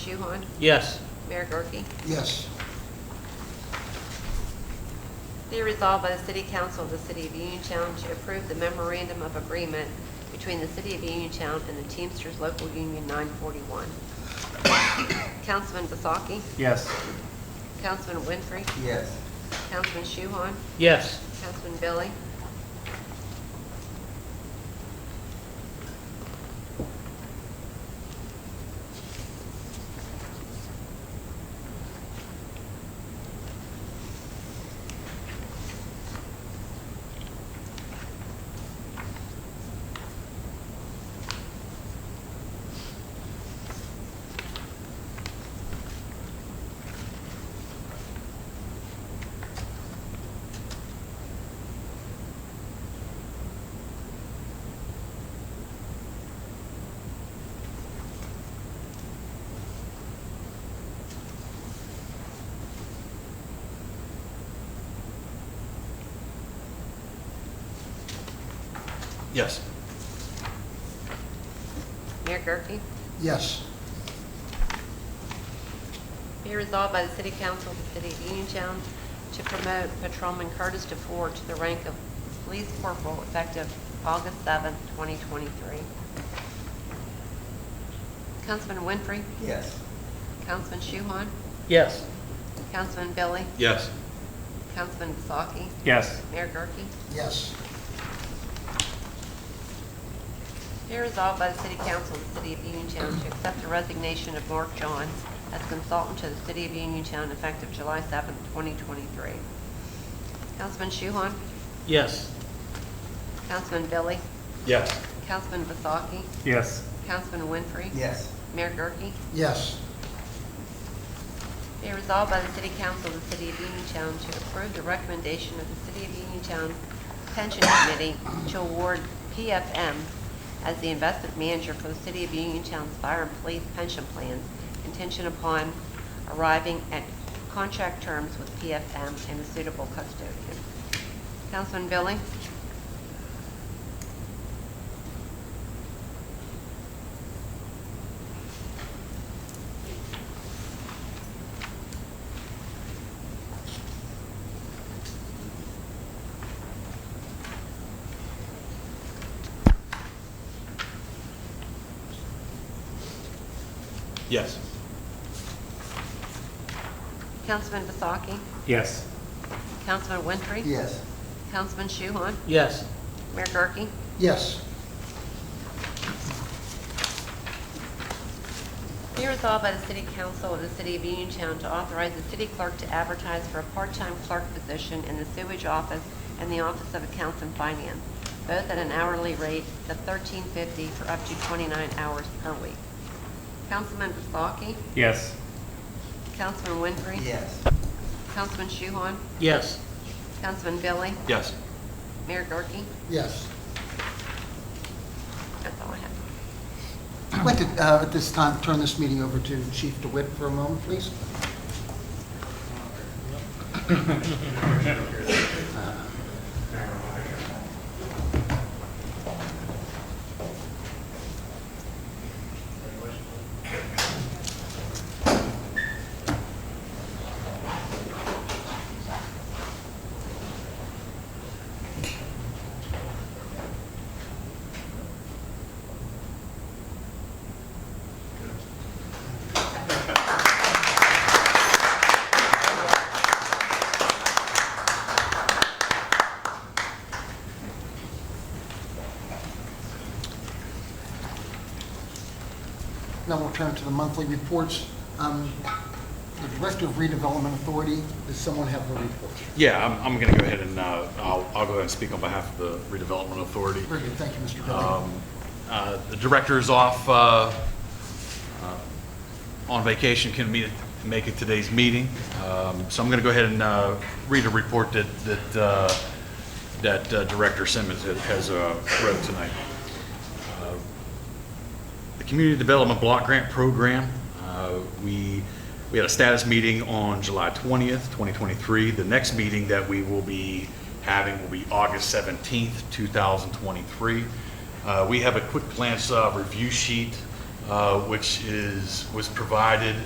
Shuhon? Yes. Mayor Gurke? Yes. Be resolved by the City Council of the City of Uniontown to approve the memorandum of agreement between the City of Uniontown and the Teamsters Local Union 941. Councilman Basaki? Yes. Councilman Winfrey? Yes. Councilman Shuhon? Yes. Councilman Billy? Yes. Mayor Gurke? Yes. Be resolved by the City Council of the City of Uniontown to promote Patrolman Curtis DeFord to the rank of Police Corporal effective August 7th, 2023. Councilman Winfrey? Yes. Councilman Shuhon? Yes. Councilman Billy? Yes. Councilman Basaki? Yes. Mayor Gurke? Yes. Be resolved by the City Council of the City of Uniontown to accept the resignation of Mark John as consultant to the City of Uniontown effective July 7th, 2023. Councilman Shuhon? Yes. Councilman Billy? Yes. Councilman Vasaki? Yes. Councilman Winfrey? Yes. Mayor Gurke? Yes. Be resolved by the City Council of the City of Uniontown to approve the recommendation of the City of Uniontown Pension Committee to award PFM as the investment manager for the City of Uniontown's fire and police pension plans contingent upon arriving at contract terms with PFM and a suitable custodian. Councilman Billy? Yes. Councilman Vasaki? Yes. Councilman Winfrey? Yes. Councilman Shuhon? Yes. Mayor Gurke? Yes. Be resolved by the City Council of the City of Uniontown to authorize the city clerk to advertise for a part-time clerk position in the sewage office and the Office of Accounts and Finance, both at an hourly rate of thirteen fifty for up to twenty-nine hours per week. Councilman Basaki? Yes. Councilman Winfrey? Yes. Councilman Shuhon? Yes. Councilman Billy? Yes. Mayor Gurke? Yes. That's all I have. I'd like to, uh, at this time, turn this meeting over to Chief DeWitt for a moment, please. Now we'll turn to the monthly reports. Um, The Director of Redevelopment Authority, does someone have a report? Yeah, I'm, I'm going to go ahead and, uh, I'll, I'll go ahead and speak on behalf of the redevelopment authority. Very good, thank you, Mr. Dudley. Uh, The director's off uh, uh, on vacation, couldn't meet, make it today's meeting. Um, So I'm going to go ahead and uh, read a report that, that, uh, that uh, Director Simmons has- has uh, wrote tonight. Uh, The Community Development Block Grant Program, uh, we, we had a status meeting on July 20th, 2023. The next meeting that we will be having will be August 17th, 2023. Uh, We have a quick glance uh, review sheet uh, which is, was provided